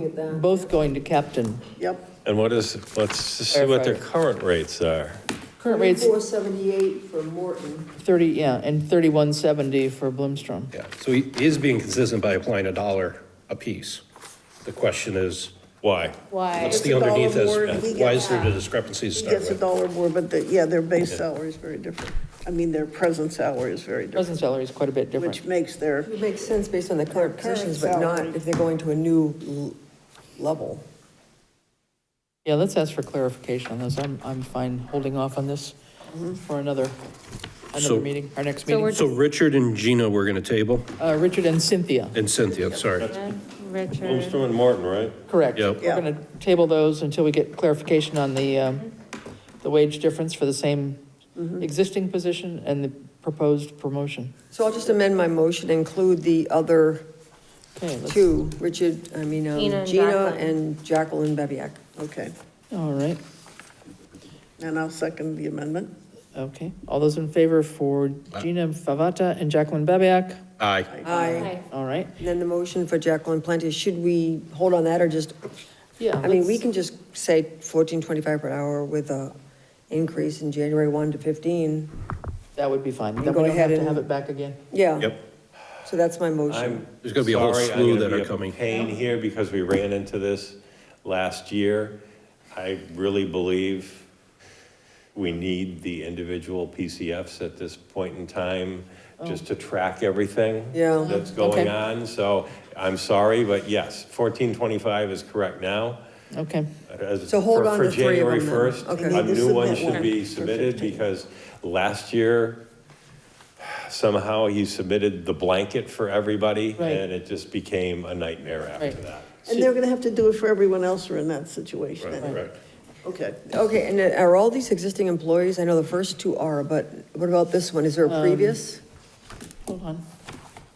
at that. Both going to captain. Yep, And what is, let's see what their current rates are. Current rate's Four seventy-eight for Morton. 30, yeah, and 3170 for Bloomstrom. Yeah, so he is being consistent by applying a dollar a piece. The question is, Why? Why? what's It's the a dollar underneath more than he is, why gets. is there the discrepancy to he start gets a with? dollar more, but the, yeah, their base salary is very different. I mean, their present salary is very different, Present salary is quite a bit which different. makes their, It makes sense based on the current Current positions, but not salary. if they're going to a new l- level. Yeah, let's ask for clarification on those. I'm, I'm fine holding off on this for another, another So- meeting, our next So meeting. So Richard and Gina, we're going to table, Uh, Richard and Cynthia, and Cynthia, sorry. Richard, Bloomstrom and Morton, right? correct. Yep. We're going to table those until we get clarification on the, um, the wage difference for the same existing position and the proposed promotion. So I'll just amend my motion, include the other Okay, let's, two, Richard, I mean, um, Gina and Gina Jacqueline. and Jacqueline Bebiak. okay. all right, And I'll second the amendment. okay. All those in favor for Gina Favata and Jacqueline Babiak? Aye. Aye. Hi. All right, And then the motion for Jacqueline Plenty, should we hold on that or just, yeah. I mean, let's- we can just say fourteen twenty-five per hour with a increase in January one to fifteen. That would be fine. Then go we don't have ahead to and- have it back again. Yeah. Yep. So that's my motion. I'm. There's gonna be a whole sorry, I'm slew gonna that be are a coming. Pain here because we ran into this last year. I really believe we need the individual PCFs at this point in time, just to track everything. Yeah. That's Okay. going on, so I'm sorry, but yes, fourteen twenty-five is correct now. Okay, As- So hold for- on for to three of them January then. 1st, Okay. A Need to new one submit should one be for submitted 15. because last year, somehow he submitted the blanket for everybody Right. and it just became a nightmare after Right. that. And they're gonna have to do it for everyone else who are in that situation. Right, right. Okay, Okay, and uh, are all these existing employees, I know the first two are, but what about this one? Is there a Um, previous? hold on.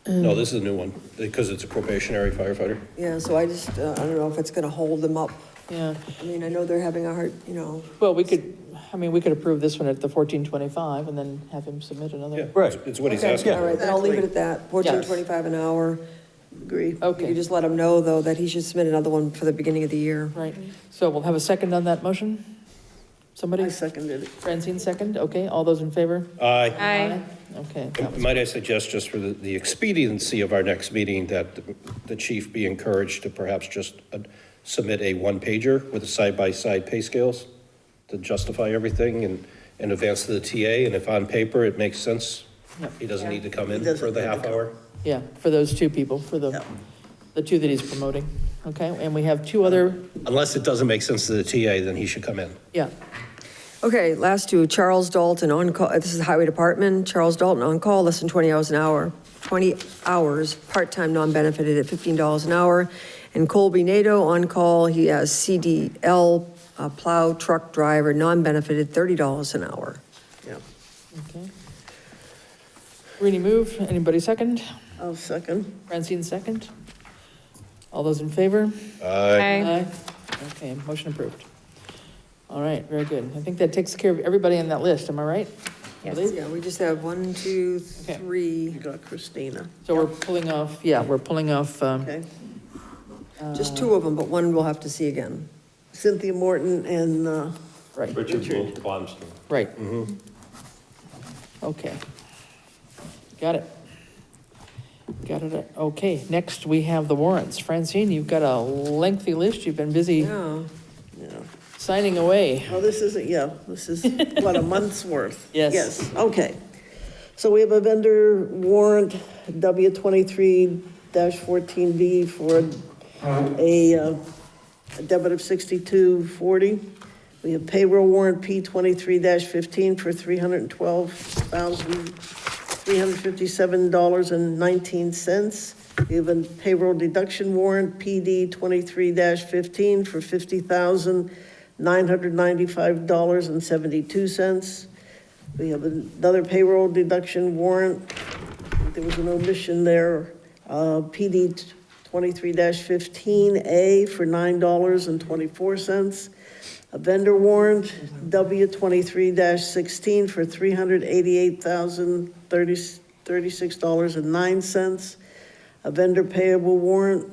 No, this is a new one, because it's a probationary firefighter. Yeah, so I just, uh, I don't know if it's gonna hold them up. Yeah, I mean, I know they're having a hard, you know, well, we could, I mean, we could approve this one at the fourteen twenty-five and then have him submit Yeah, another. Right. It's what he's Okay, asking. All right, then I'll leave it at that, fourteen Yes. twenty-five an hour. agree. You Okay, just let him know, though, that he should submit another one for the beginning of the year. right. So we'll have a second on that motion? Somebody? I seconded it. Francine second, okay, all those in favor? Aye. Hi. Okay, that And was- Might I suggest, just for the- the expediency of our next meeting, that the- the chief be encouraged to perhaps just uh, submit a one-pager with the side-by-side pay scales to justify everything and, and advance to the TA, and if on paper it makes sense, he doesn't need to come in doesn't for the need to half hour. yeah, for those two people, for the, Yeah. the two that he's promoting. Okay, and we have two other, Unless it doesn't make sense to the TA, then he should come in. yeah, Okay, last two, Charles Dalton on call, uh, this is the Highway Department, Charles Dalton on call, less than 20 hours an hour, 20 hours, part-time, non-benefited at $15 an hour. And Colby Nato on call, he has CDL, uh, plow truck driver, non-benefited, $30 an hour. Yeah, okay. Rini move, anybody second? I'll second. Francine second. All those in favor? Hi. Aye. Okay, motion approved. All right, very good. I think that takes care of everybody on that list, am I right? I believe? Yeah, we just have one, two, Okay. You three, got Christina, So we're pulling off, yeah, we're pulling off, um, okay? just two of them, but one we'll have to see again. Cynthia Morton and, uh, right, Richard Blomstrom. right. Okay. Got it. Got it. Okay, next we have the warrants. Francine, you've got a lengthy list. You've been busy Yeah, yeah. signing away. Oh, this isn't, yeah, this is, what, a month's worth? Yes. Yes, okay. So we have a vendor warrant, W twenty-three fourteen B for a uh, a debit of sixty-two forty. We have payroll warrant P twenty-three fifteen for three hundred and twelve thousand, three hundred fifty-seven dollars and nineteen cents. We have a payroll deduction warrant PD twenty-three fifteen for fifty thousand, nine hundred ninety-five dollars and seventy-two cents. We have another payroll deduction warrant. There was an omission there. Uh, PD twenty-three fifteen A for nine dollars and twenty-four cents. A vendor warrant, W twenty-three sixteen for three hundred eighty-eight thousand thirty, thirty-six dollars and nine cents. A vendor payable warrant,